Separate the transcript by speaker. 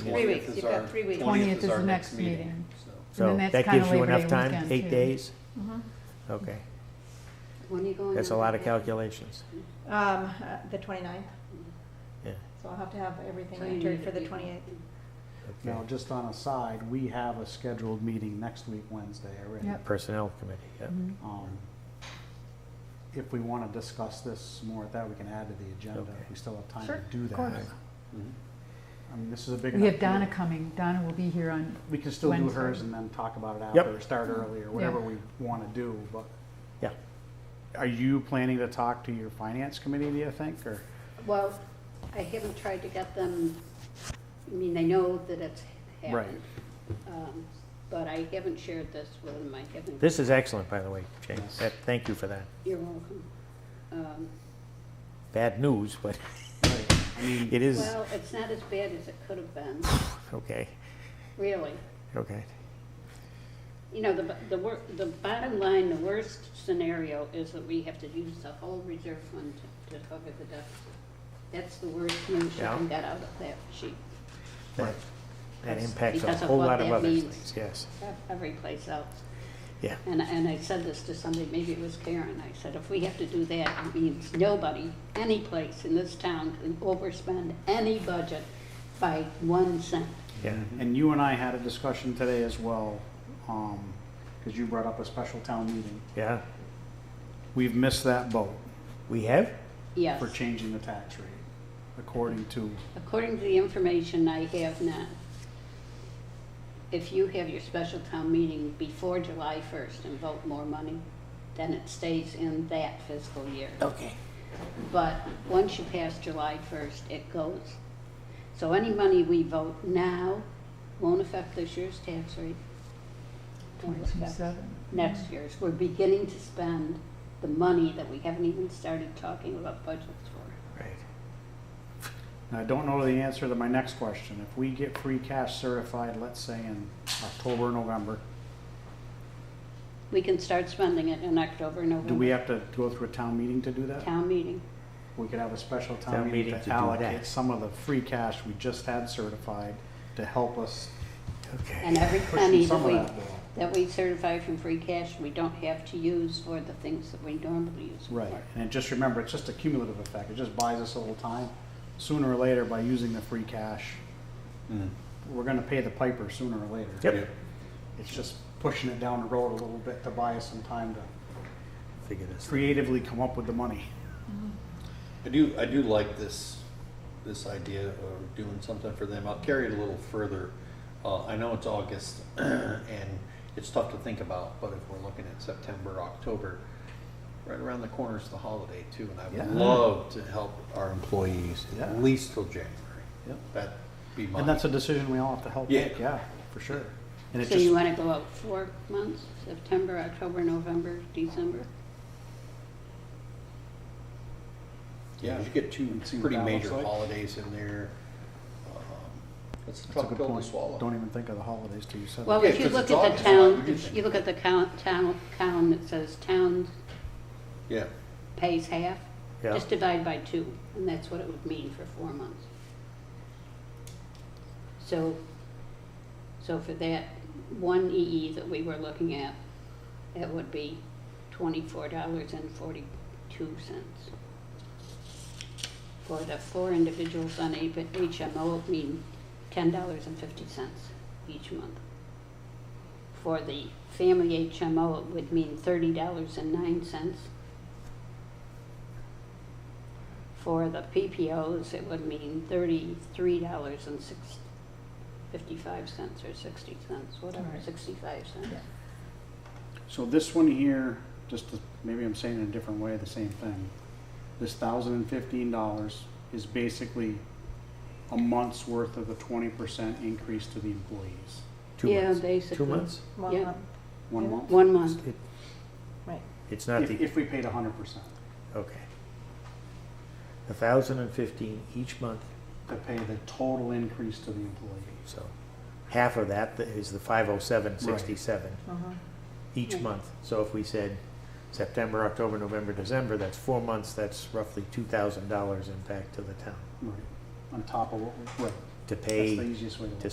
Speaker 1: Three weeks, you've got three weeks.
Speaker 2: 20th is
Speaker 3: our
Speaker 2: the next meeting. And
Speaker 4: So
Speaker 2: then that's
Speaker 4: that
Speaker 2: kinda
Speaker 4: gives you
Speaker 2: Labor Day
Speaker 4: enough time,
Speaker 2: weekend, too.
Speaker 4: eight days?
Speaker 1: Mhm.
Speaker 4: Okay,
Speaker 5: When are you going?
Speaker 4: that's a
Speaker 5: on
Speaker 4: lot of
Speaker 5: vacation?
Speaker 4: calculations,
Speaker 1: Um, uh, the 29th.
Speaker 4: yeah.
Speaker 1: so I'll have to have everything
Speaker 5: So you
Speaker 1: entered
Speaker 5: need
Speaker 1: for
Speaker 5: to
Speaker 1: the
Speaker 5: be-
Speaker 1: 28th.
Speaker 4: okay.
Speaker 6: Now, just on a side, we have a scheduled meeting next week, Wednesday already.
Speaker 2: Yep.
Speaker 4: Personnel committee, yeah.
Speaker 2: Mhm.
Speaker 6: Um, If we want to discuss this more at that, we can add to the agenda.
Speaker 4: Okay.
Speaker 6: We still have time
Speaker 1: Sure,
Speaker 6: to do
Speaker 2: of
Speaker 6: that.
Speaker 2: course.
Speaker 6: I mean, this is a big enough.
Speaker 2: We have Donna
Speaker 6: deal.
Speaker 2: coming. Donna will be here on,
Speaker 6: We can still do
Speaker 2: Wednesday. Mm-hmm.
Speaker 6: hers and then talk about it
Speaker 4: Yep.
Speaker 6: after, or start early, or whatever we want to do, but.
Speaker 4: Yeah.
Speaker 6: Are you planning to talk to your finance committee, do you think, or?
Speaker 5: Well, I haven't tried to get them, I mean, they know that it's
Speaker 6: Right.
Speaker 5: happened. Um, But I haven't shared this with them, I haven't.
Speaker 4: This is excellent, by the way, James,
Speaker 6: Yes.
Speaker 4: That- thank you for that.
Speaker 5: You're welcome. Um,
Speaker 4: Bad news, but
Speaker 6: I mean,
Speaker 4: it is,
Speaker 5: Well, it's not as bad as it could have been,
Speaker 4: okay,
Speaker 5: really.
Speaker 4: okay.
Speaker 5: You know, the, b- the wor, the bottom line, the worst scenario is that we have to use the whole reserve fund to, to cover the deficit. That's the worst news you
Speaker 4: Yeah.
Speaker 5: can get out of that sheet,
Speaker 4: That that impacts a
Speaker 5: Because of
Speaker 4: whole
Speaker 5: what
Speaker 4: lot of
Speaker 5: that
Speaker 4: other
Speaker 5: means.
Speaker 4: things, yes,
Speaker 5: every place else.
Speaker 4: yeah.
Speaker 5: And, and I said this to somebody, maybe it was Karen, I said, if we have to do that, it means nobody, any place in this town can overspend any budget by one cent.
Speaker 4: Yeah,
Speaker 2: Mm-hmm.
Speaker 6: and you and I had a discussion today as well, um, because you brought up a special town meeting.
Speaker 4: yeah.
Speaker 6: We've missed that boat
Speaker 4: We have?
Speaker 5: Yes,
Speaker 6: for changing the tax rate, according to,
Speaker 5: according to the information I have now, if you have your special town meeting before July first and vote more money, then it stays in that fiscal year.
Speaker 4: Okay.
Speaker 5: But once you pass July first, it goes. So any money we vote now won't affect this year's tax rate. Won't affect
Speaker 2: 27.
Speaker 5: Next year's, we're beginning to spend the money that we haven't even started talking about budgets for.
Speaker 4: Right,
Speaker 6: and I don't know the answer to my next question. If we get free cash certified, let's say in October, November,
Speaker 5: We can start spending it in October,
Speaker 6: do we
Speaker 5: November,
Speaker 6: have to go through a town meeting to do that?
Speaker 5: town meeting.
Speaker 6: We could have a special
Speaker 4: Town
Speaker 6: town meeting
Speaker 4: meeting to
Speaker 6: to
Speaker 4: do
Speaker 6: allocate
Speaker 4: that.
Speaker 6: some of the free cash we just had certified to help us
Speaker 4: okay.
Speaker 5: And every
Speaker 6: push
Speaker 5: penny that
Speaker 6: some of
Speaker 5: we,
Speaker 6: that. bill.
Speaker 5: that we certify from free cash, we don't have to use for the things that we normally use for.
Speaker 6: Right, and just remember, it's just a cumulative effect, it just buys us a little time. Sooner or later, by using the free cash, we're gonna pay the piper sooner or later.
Speaker 4: Yep,
Speaker 6: It's just pushing it down the road a little bit to buy us some time to
Speaker 4: figure this. out.
Speaker 6: creatively come up with the money.
Speaker 3: I do, I do like this, this idea of doing something for them. I'll carry it a little further. Uh, I know it's August and it's tough to think about, but if we're looking at September, October, right around the corner is the holiday too, and I would
Speaker 6: Yeah.
Speaker 3: love to help our employees
Speaker 6: Yeah.
Speaker 3: at least till January.
Speaker 6: Yep.
Speaker 3: That'd be my.
Speaker 6: And that's a decision we all have to help
Speaker 3: Yeah.
Speaker 6: make, yeah, for sure. And it
Speaker 5: So you
Speaker 6: just,
Speaker 5: wanna go out four months, September, October, November, December?
Speaker 3: Yeah, you get two
Speaker 6: See what
Speaker 3: pretty
Speaker 6: that
Speaker 3: major
Speaker 6: looks like.
Speaker 3: holidays in there. Um, That's a
Speaker 6: that's a
Speaker 3: tough
Speaker 6: good
Speaker 3: pill to
Speaker 6: point,
Speaker 3: swallow.
Speaker 6: don't even think of the holidays till you said
Speaker 5: Well,
Speaker 3: Yeah,
Speaker 6: that.
Speaker 5: if you
Speaker 3: 'cause
Speaker 5: look
Speaker 3: it's
Speaker 5: at the
Speaker 3: August, why would
Speaker 5: town,
Speaker 3: you
Speaker 5: if
Speaker 3: think
Speaker 5: you look at the count, town, column that says town
Speaker 3: Yeah,
Speaker 5: pays half,
Speaker 4: Yeah.
Speaker 5: just divide by two, and that's what it would mean for four months. So, so for that one EE that we were looking at, it would be twenty-four dollars and forty-two cents. For the four individuals on A- HMO, it mean ten dollars and fifty cents each month. For the family HMO, it would mean thirty dollars and nine cents. For the PPOs, it would mean thirty-three dollars and six, fifty-five cents or sixty cents, whatever,
Speaker 2: Right.
Speaker 5: sixty-five cents.
Speaker 6: So this one here, just to, maybe I'm saying it in a different way, the same thing. This thousand and fifteen dollars is basically a month's worth of the twenty percent increase to the employees.
Speaker 4: Two
Speaker 5: Yeah,
Speaker 4: months. Two
Speaker 5: basically.
Speaker 4: months?
Speaker 1: One
Speaker 5: Yeah.
Speaker 1: month,
Speaker 6: One month,
Speaker 5: One month,
Speaker 4: It-
Speaker 1: right.
Speaker 4: It's not
Speaker 6: if,
Speaker 4: the,
Speaker 6: if we paid a hundred percent
Speaker 4: okay. A thousand and fifteen each month,
Speaker 6: to pay the total increase to the employee.
Speaker 4: so half of that is the five oh seven sixty-seven
Speaker 1: Mhm.
Speaker 4: each
Speaker 5: Right.
Speaker 4: month. So if we said September, October, November, December, that's four months, that's roughly two thousand dollars impact to the town.
Speaker 6: Right, on top of what, we- right,
Speaker 4: to
Speaker 6: That's
Speaker 4: pay.
Speaker 6: the easiest way to look.
Speaker 4: to